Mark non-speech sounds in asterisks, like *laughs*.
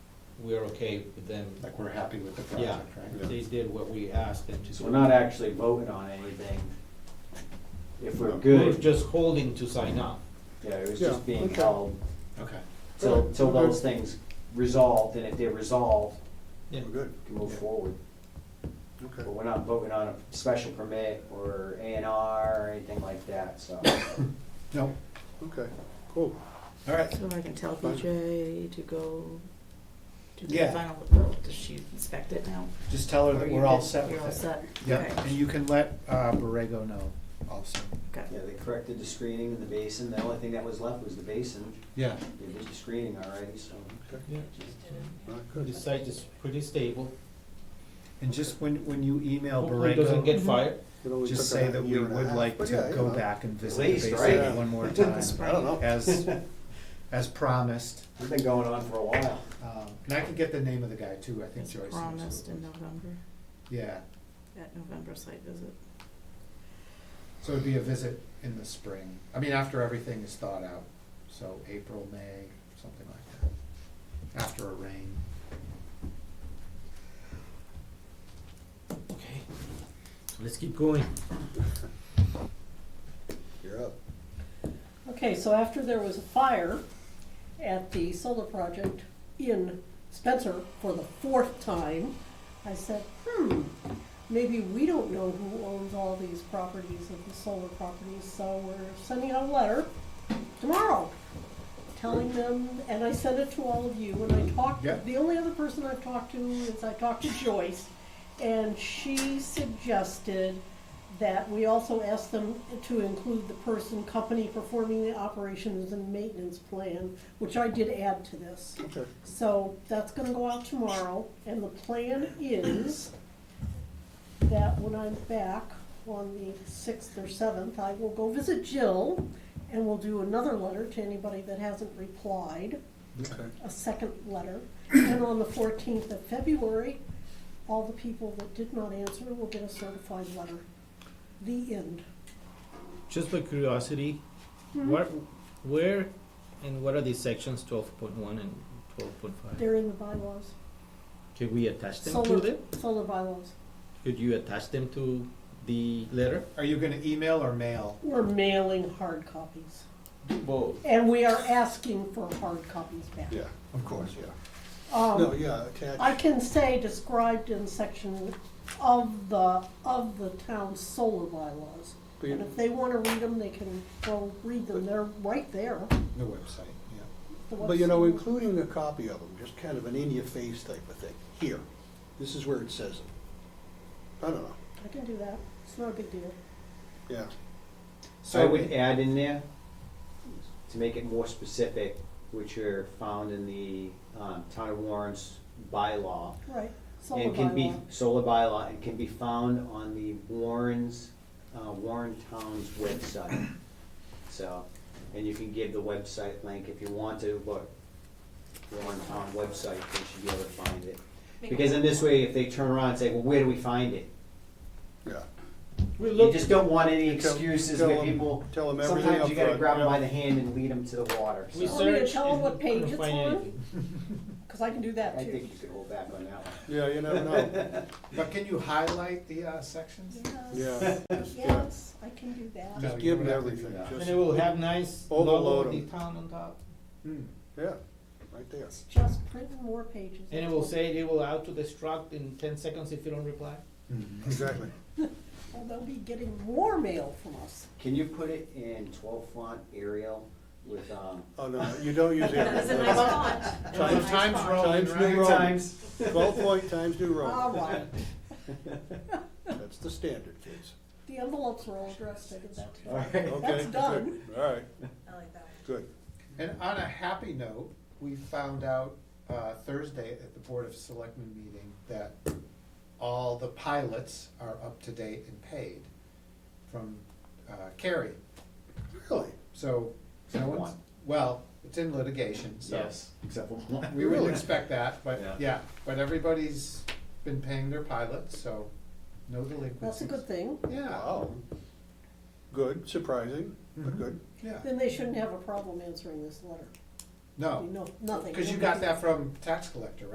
we're okay with them. like we're happy with the Yeah, project, right? they did what we asked them to. So do. we're not actually voting on anything. If we're We're good, just holding to sign up. yeah, it was Yeah, just being okay. held Okay. till, till Okay. those things resolved, and if they're resolved, Yeah. We're good, we can move Yeah. forward. okay. But we're not voting on a special permit or A and R or anything like that, *coughs* so. No, Okay, cool. all right, So I can tell Fine. BJ to go do the Yeah. final, well, does she inspect it now? just tell her Or that you we're all good? set with it. You're all set? Yep, Okay. and you can let uh, Borrego know also. Okay. Yeah, they corrected the screening in the basin, the only thing that was left was the basin, Yeah. they did the screening already, so. Yeah. All right, The good. site is pretty stable. And just when, when you email Hopefully it doesn't Borrego, get fired. It only just took say a that we year and a would half, like but yeah, to you go know. back and visit least, the right? basin one *laughs* more Yeah. time, I don't know. *laughs* as, as promised. It's been going on for a while. Um, And I can get the name of the guy too, I think It's Joyce knows. promised who it in was. November, Yeah, at November site visit. so it'd be a visit in the spring, I mean, after everything is thawed out, so April, May, something like that, after a rain. Okay. Let's keep going. You're up. Okay, so after there was a fire at the solar project in Spencer for the fourth time, I said, hmm, maybe we don't know who owns all these properties of the solar properties, so we're sending out a letter tomorrow telling them, and I sent it to all of you, and I talked, Yeah. the only other person I've talked to is I talked to Joyce, and she suggested that we also asked them to include the person, company performing the operations and maintenance plan, which I did add to this. Okay, So that's gonna go out tomorrow, and the plan is that when I'm back on the sixth or seventh, I will go visit Jill, and we'll do another letter to anybody that hasn't replied, okay. a second letter. And on the fourteenth of February, all the people that did not answer will get a certified letter. The end. Just by curiosity, Mm-hmm. what, where, and what are these sections twelve point one and twelve point five? They're in the bylaws, Can we attach them to Solar. them? solar bylaws. Could you attach them to the letter? Are you gonna email or mail? We're mailing hard copies, Both. and we are asking for hard copies back. Yeah, Of course. yeah. No, Um, yeah, attached. I can say described in section of the, of the town's solar bylaws. But you- And if they wanna read them, they can go read them, they're right there. The website, yeah. The But you know, website. including a copy of them, just kind of an in-your-face type of thing. Here, this is where it says it. I don't know, I can do that, it's not a big deal. yeah. I So would add in there, to make it more specific, which are found in the um, Town of Warren's bylaw. Right, solar And can be, bylaw, solar bylaw, and can be found on the Warren's, uh, Warren Town's website. So, and you can give the website link if you want to, but Warren Town website, they should be able to find it. Because in this way, if they turn around and say, well, where do we find it? Yeah. We You look, just don't want any You tell- excuses tell where 'em- people, tell 'em everything sometimes you gotta upfront, grab them by yeah. the hand and lead them to the water. we So Want me to search tell 'em and what page couldn't it's find on? anything. cause I can do that I too. think you could hold back on that one. Yeah, you never know, *laughs* But can you highlight the uh, sections? yeah. *laughs* Just, yeah. Yes, I can do that. No, Just you give them don't have to do everything, that. just, And it will have nice logo Overload of the 'em. town on top. Hmm. yeah, right there. It's just printing more pages. And it will say they will out to destruct in ten seconds if you don't reply. Mm-hmm. Exactly. Well, they'll be getting more mail from us. Can you put it in twelve font Arial with, um, Oh, no, you don't *laughs* use that. That's a *laughs* nice font. Times, times Roman, Times right? New Roman. times? Twelve point times New All Roman, right. that's the standard, kids. The envelopes are all addressed, I did that too. All right. Okay. *laughs* That's good. done. All right, I like that one. good. And on a happy note, we found out uh, Thursday at the Board of Selectmen meeting that all the pilots are up to date and paid from uh, Carrie. Really? So, no Except one's, one. well, it's in litigation, so. Except for one. We would Really? expect that, Yeah. but, yeah, but everybody's been paying their pilots, so no delinquencies. That's a good thing. Yeah, Wow. Good, surprising, but Mhm. good. yeah, Then they shouldn't have a problem answering this letter. no, Oh. No, nothing. because you got that from tax collector, right?